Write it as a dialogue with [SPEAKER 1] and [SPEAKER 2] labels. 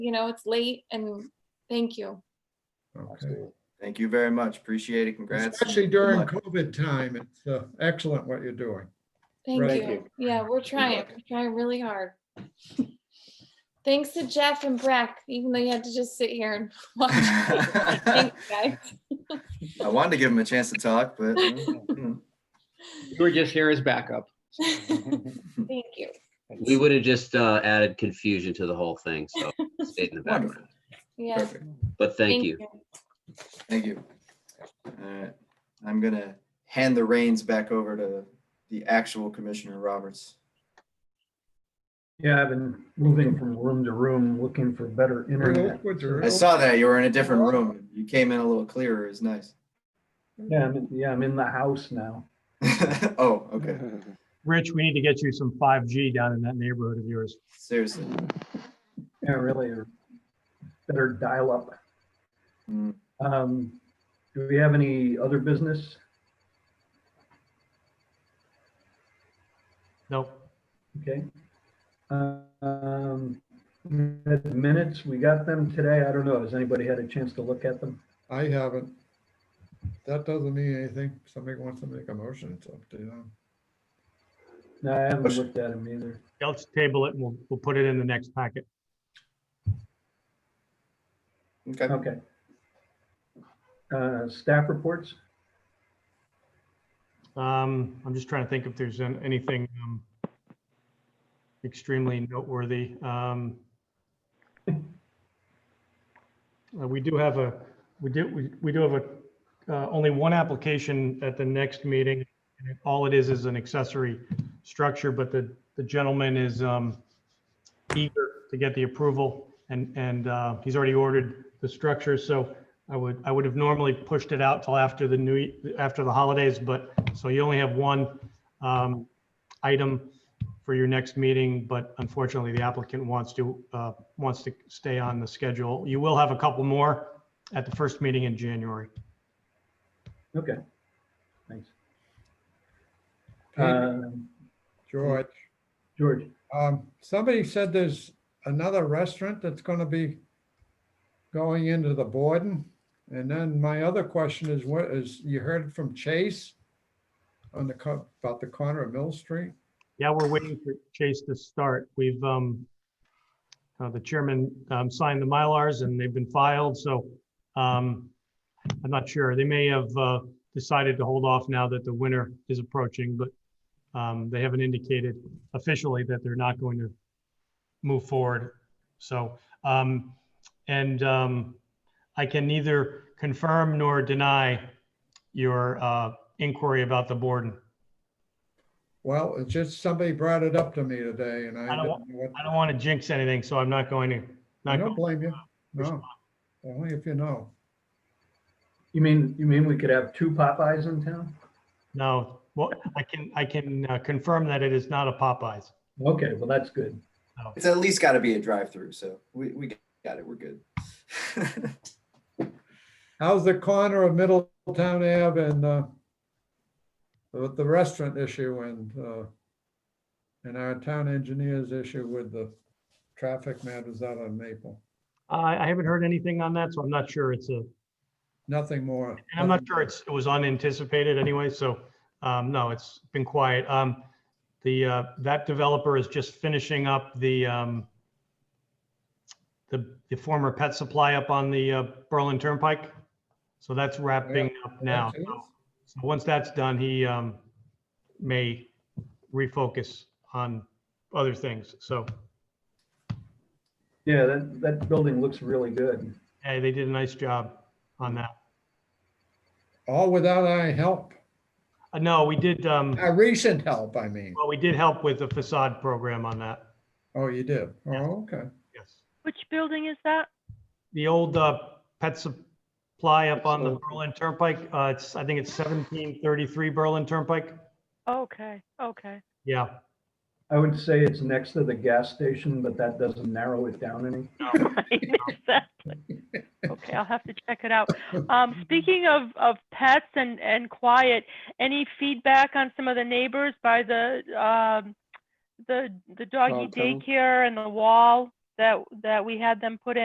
[SPEAKER 1] you know, it's late and thank you.
[SPEAKER 2] Okay.
[SPEAKER 3] Absolutely.
[SPEAKER 4] Thank you very much. Appreciate it. Congrats.
[SPEAKER 2] Especially during
[SPEAKER 4] Good luck.
[SPEAKER 2] COVID time, it's uh, excellent what you're doing.
[SPEAKER 1] Thank
[SPEAKER 2] Right.
[SPEAKER 1] you. Yeah, we're trying,
[SPEAKER 4] welcome.
[SPEAKER 1] we're trying really hard. Thanks to Jeff and Breck, even though you had to just sit here and watch. Thanks, guys.
[SPEAKER 4] I wanted to give him a chance to talk, but mm,
[SPEAKER 3] You were just here as backup.
[SPEAKER 1] Thank you.
[SPEAKER 5] We would have just uh, added confusion to the whole thing, so it stayed in the
[SPEAKER 4] wonderful.
[SPEAKER 5] background.
[SPEAKER 1] Yeah.
[SPEAKER 4] Perfect.
[SPEAKER 5] But thank you.
[SPEAKER 4] Thank you. All right. I'm gonna hand the reins back over to the actual Commissioner Roberts.
[SPEAKER 6] Yeah, I've been moving from room to room, looking for better internet.
[SPEAKER 4] I saw that you were in a different room. You came in a little clearer. It's nice.
[SPEAKER 6] Yeah, I'm, in- yeah, I'm in the house now.
[SPEAKER 4] Oh, okay.
[SPEAKER 7] Rich, we need to get you some 5G down in that neighborhood of yours.
[SPEAKER 4] Seriously.
[SPEAKER 6] Yeah, really, or better dial up.
[SPEAKER 4] Mm.
[SPEAKER 6] Um, do we have any other business?
[SPEAKER 7] No,
[SPEAKER 6] Okay. Um, had minutes, we got them today. I don't know. Has anybody had a chance to look at them?
[SPEAKER 2] I haven't. That doesn't mean anything. Somebody wants to make a motion, it's up to them.
[SPEAKER 6] No, I haven't looked at them either.
[SPEAKER 7] let's table it and we'll, we'll put it in the next packet.
[SPEAKER 4] Okay.
[SPEAKER 6] Okay. Uh, staff reports?
[SPEAKER 7] Um, I'm just trying to think if there's an- anything um, extremely noteworthy. Um, uh, We do have a, we do, we we do have a, uh, only one application at the next meeting. and it- All it is is an accessory structure, but the, the gentleman is um, eager to get the approval and, and uh, he's already ordered the structure. So I would, I would have normally pushed it out till after the new, ye- after the holidays, but, so you only have one um, item for your next meeting, but unfortunately, the applicant wants to, uh, wants to stay on the schedule. You will have a couple more at the first meeting in January.
[SPEAKER 6] Okay. Thanks.
[SPEAKER 7] Uh,
[SPEAKER 2] Peter,
[SPEAKER 6] Um,
[SPEAKER 2] George,
[SPEAKER 6] George?
[SPEAKER 2] um, somebody said there's another restaurant that's gonna be going into the Borden. And then my other question is, what is, you heard from Chase on the, co- about the corner of Mill Street?
[SPEAKER 7] Yeah, we're waiting for Chase to start. We've, um, uh, the chairman, um, signed the Mylars and they've been filed, so, um, I'm not sure. They may have, uh, decided to hold off now that the winter is approaching, but, um, they haven't indicated officially that they're not going to move forward. So, um, and, um, I can neither confirm nor deny your, uh, inquiry about the Borden.
[SPEAKER 2] Well, it's just somebody brought it up to me today and I
[SPEAKER 7] I don't wa-
[SPEAKER 2] didn't know what.
[SPEAKER 7] I don't want to jinx anything, so I'm not going to,
[SPEAKER 2] I
[SPEAKER 7] not,
[SPEAKER 2] don't
[SPEAKER 7] go-
[SPEAKER 2] blame you. No, only if you know.
[SPEAKER 6] You mean, you mean we could have two Popeyes in town?
[SPEAKER 7] no, well, I can, I can uh, confirm that it is not a Popeyes.
[SPEAKER 6] Okay, well, that's good.
[SPEAKER 4] It's at least gotta be a drive-through, so we, we got it. We're good.
[SPEAKER 2] How's the corner of Middletown Ave and uh, with the restaurant issue and uh, and our town engineer's issue with the traffic matters out on Maple?
[SPEAKER 7] I, I haven't heard anything on that, so I'm not sure it's a, and
[SPEAKER 2] Nothing more.
[SPEAKER 7] I'm not
[SPEAKER 2] nothing
[SPEAKER 7] sure it's, it was unanticipated anyway, so, um, no, it's been quiet. Um, the, uh, that developer is just finishing up the, um, the, the former pet supply up on the uh, Berlin Turnpike. So that's wrapping up
[SPEAKER 2] more.
[SPEAKER 7] now. So- So once that's done, he um, may refocus on other things. So,
[SPEAKER 6] Yeah, that, that building looks really good.
[SPEAKER 7] hey, they did a nice job on that.
[SPEAKER 2] All without our help,
[SPEAKER 7] Uh, No, we did, um,
[SPEAKER 2] our recent help, I mean.
[SPEAKER 7] well, we did help with the facade program on that.
[SPEAKER 2] Oh, you did? Oh, okay.
[SPEAKER 7] Yes.
[SPEAKER 8] Which building is that?
[SPEAKER 7] The old uh, pet supply up on the Berlin Turnpike, uh, it's, I think it's 1733 Berlin Turnpike.
[SPEAKER 8] Okay, okay.
[SPEAKER 7] Yeah.
[SPEAKER 6] I would say it's next to the gas station, but that doesn't narrow it down any.
[SPEAKER 8] Right, exactly. Okay, I'll have to check it out. Um, speaking of, of pets and, and quiet, any feedback on some of the neighbors by the, um, the, the doggy
[SPEAKER 3] Dog kennel?
[SPEAKER 8] daycare and the wall? that, that we had them put in.